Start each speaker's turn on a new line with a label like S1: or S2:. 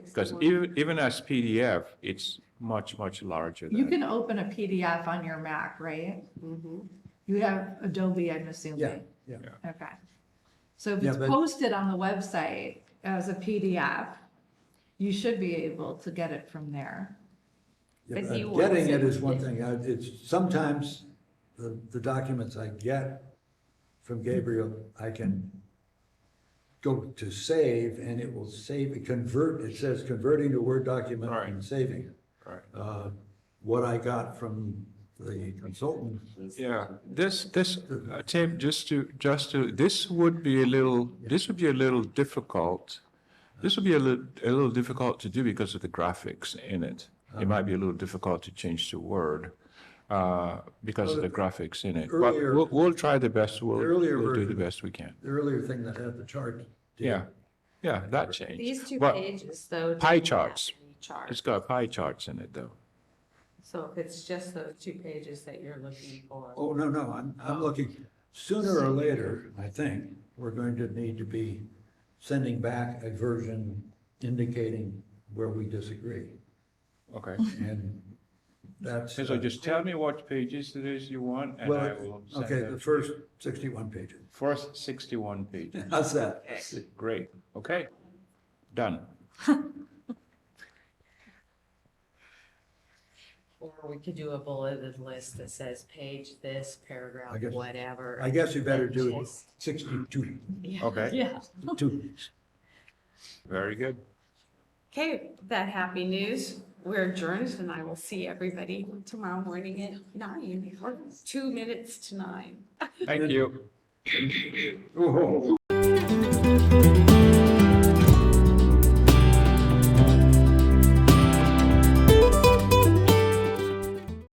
S1: is. the
S2: Because
S1: word.
S2: even, even as PDF, it's much, much larger
S1: You
S2: than,
S1: can open a PDF on your Mac, right? You have Adobe, I'm assuming.
S3: Yeah, yeah.
S1: Okay. So if
S3: Yeah,
S1: it's
S3: but-
S1: posted on the website as a PDF, you should be able to get it from there.
S3: Yeah,
S4: But
S3: but
S4: you
S3: Uh, Getting
S4: want
S3: it
S4: it-
S3: is one thing, I, it's, sometimes the, the documents I get from Gabriel, I can go to save and it will save, it convert, it says converting to Word document and
S2: Right.
S3: saving it.
S2: right?
S3: Uh, What I got from the consultant,
S2: Yeah, this, this, uh, Tim, just to, just to, this would be a little, this would be a little difficult. This would be a little, a little difficult to do because of the graphics in it. It might be a little difficult to change to Word, uh, because of the graphics in it. But
S3: earlier-
S2: we'll, we'll try the best, we'll,
S3: The earlier
S2: we'll do the
S3: version.
S2: best we can.
S3: the earlier thing that had the chart. did.
S2: Yeah, yeah, that changed.
S4: These two
S2: But
S4: pages though.
S2: pie
S4: didn't have
S2: charts.
S4: any Charts.
S2: It's got pie charts in it, though.
S4: So if it's just those two pages that you're looking for,
S3: Oh, no, no, I'm, I'm looking, sooner or later, I think, we're going to need to be sending back a version indicating where we disagree.
S2: Okay.
S3: And that's.
S2: So just tell me what pages it is you want, and I
S3: Well,
S2: will send
S3: okay, the
S2: them.
S3: first sixty-one pages.
S2: First sixty-one pages.
S3: How's that?
S2: Great, okay, done.
S4: or we could do a bulleted list that says page this,
S3: I
S4: paragraph,
S3: guess-
S4: whatever.
S3: I guess you better
S4: and
S3: do
S4: just-
S3: sixty-two,
S4: Yeah.
S2: Okay.
S4: Yeah.
S3: two.
S2: Very good.
S4: Okay, with that happy news. We're adjourned and I will see everybody tomorrow morning at nine, or two minutes to nine.
S2: Thank you.
S3: Oh.